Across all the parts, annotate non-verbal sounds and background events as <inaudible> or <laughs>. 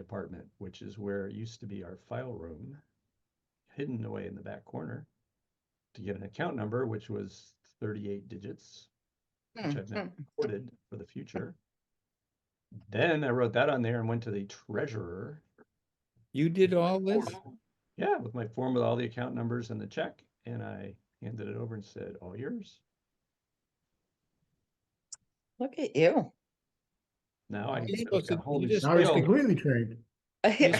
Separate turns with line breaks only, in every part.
department, which is where it used to be our file room, hidden away in the back corner, to get an account number, which was thirty-eight digits,
Hmm,
which I've now recorded for the future. Then I wrote that on there and went to the treasurer,
You did all this?
yeah, with my form with all the account numbers and the check, and I handed it over and said, all yours.
Look at you. <laughs>
Now I.
You're
I've
supposed
got
to-
a whole
you
new
just-
Now he's
skill.
completely trained.
<laughs>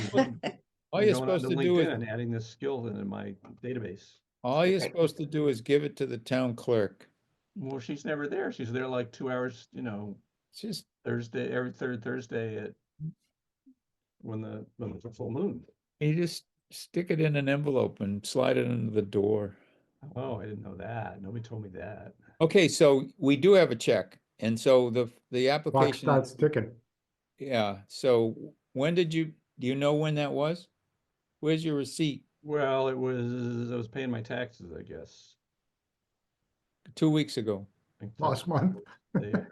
All you're
going on
supposed to do
LinkedIn
is,
and Adding this skill into my database.
all you're
Okay.
supposed to do is give it to the town clerk.
Well, she's never there. She's there like two hours, you know,
Just,
Thursday, every third Thursday at when the, when it's a full moon.
you just stick it in an envelope and slide it under the door.
Oh, I didn't know that. Nobody told me that.
Okay, so we do have a check, and so the, the
Clock
application,
starts ticking.
yeah, so when did you, do you know when that was? Where's your receipt?
Well, it was, I was paying my taxes, I guess.
Two weeks ago?
I think
Last
that's
month. <laughs>
the-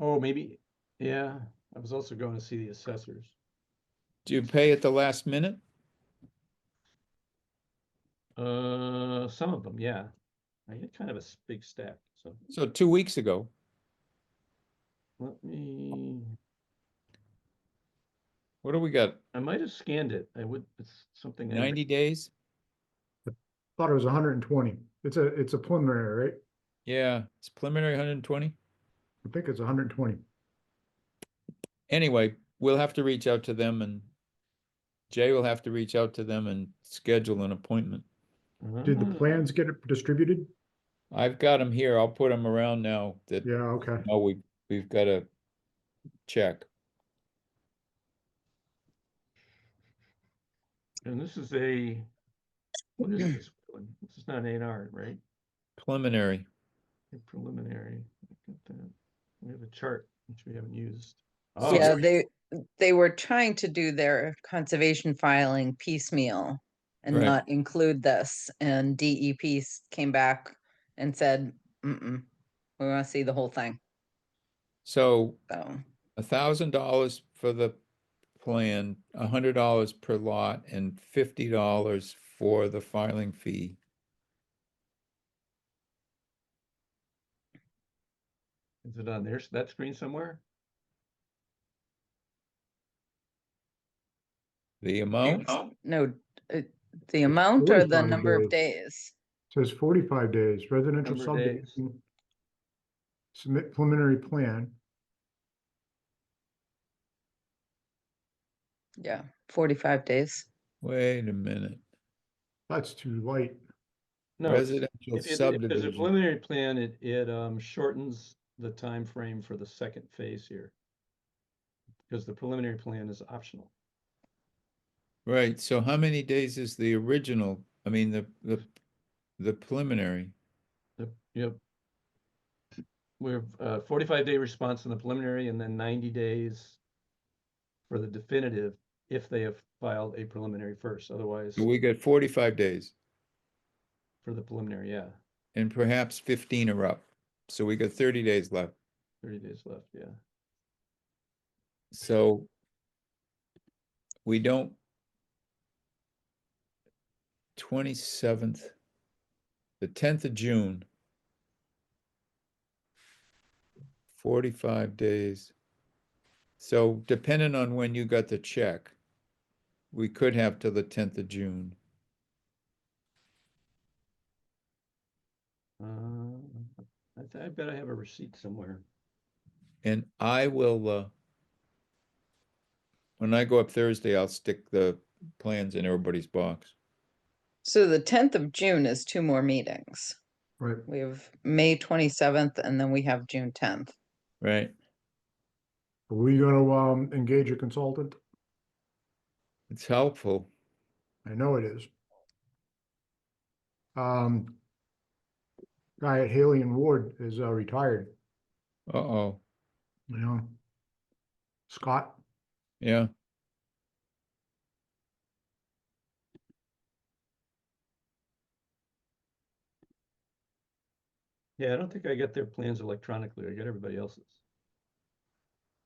Oh, maybe, yeah. I was also going to see the assessors.
Do you pay at the last minute?
Uh, some of them, yeah. I had kind of a s- big stack, so
So two weeks ago,
let me.
what do we got,
I might have scanned it. I would, it's something. I haven't-
ninety days?
Thought it was hundred and twenty. It's a, it's a preliminary, right?
Yeah, it's preliminary hundred and twenty.
I think it's hundred and twenty.
Anyway, we'll have to reach out to them and Jay will have to reach out to them and schedule an appointment.
Did the
Ah,
plans get it distributed?
I've got them here. I'll put them around now that,
Yeah, okay.
oh, we, we've got to check.
And this is a, what is this one? This is not an R, right?
Preliminary.
A Preliminary. Look at that. We have a chart which we haven't used. Oh,
Yeah, they, they were trying to do their conservation filing piecemeal and
Right.
not include this, and DEP s- came back and said, mm-mm, we want to see the whole thing,
So
so.
a thousand dollars for the plan, a hundred dollars per lot and fifty dollars for the filing fee.
Is it on there, s- that screen somewhere?
The amount?
No, uh, the amount or the
45
number of days?
Says forty-five days residential
Number of days.
subdivision. Submit preliminary plan.
Yeah, forty-five days.
Wait a minute.
That's too light.
No, it's-
Residential
if it- if there's a
subdivision.
preliminary plan, it, it um, shortens the time frame for the second phase here. Because the preliminary plan is optional.
Right, so how many days is the original, I mean, the, the, the preliminary?
Yep, yep. We have a forty-five day response in the preliminary and then ninety days for the definitive if they have filed a preliminary first, otherwise
So We got forty-five days
for the preliminary, yeah,
and perhaps fifteen are up. So we got thirty days left.
thirty days left, yeah.
So we don't twenty-seventh, the tenth of June. Forty-five days. So depending on when you got the check, we could have till the tenth of June.
Uh, I, th- I bet I have a receipt somewhere.
And I will, uh, when I go up Thursday, I'll stick the plans in everybody's box.
So the tenth of June is two more meetings.
Right.
We have May twenty-seventh and then we have June tenth.
Right.
Are we gonna, um, engage a consultant?
It's helpful.
I know it is. Um, guy at Haley and Ward is uh, retired,
Uh-oh,
you know. Scott,
yeah.
Yeah, I don't think I got their plans electronically. I got everybody else's.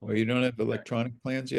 Well, you don't have electronic plans yet?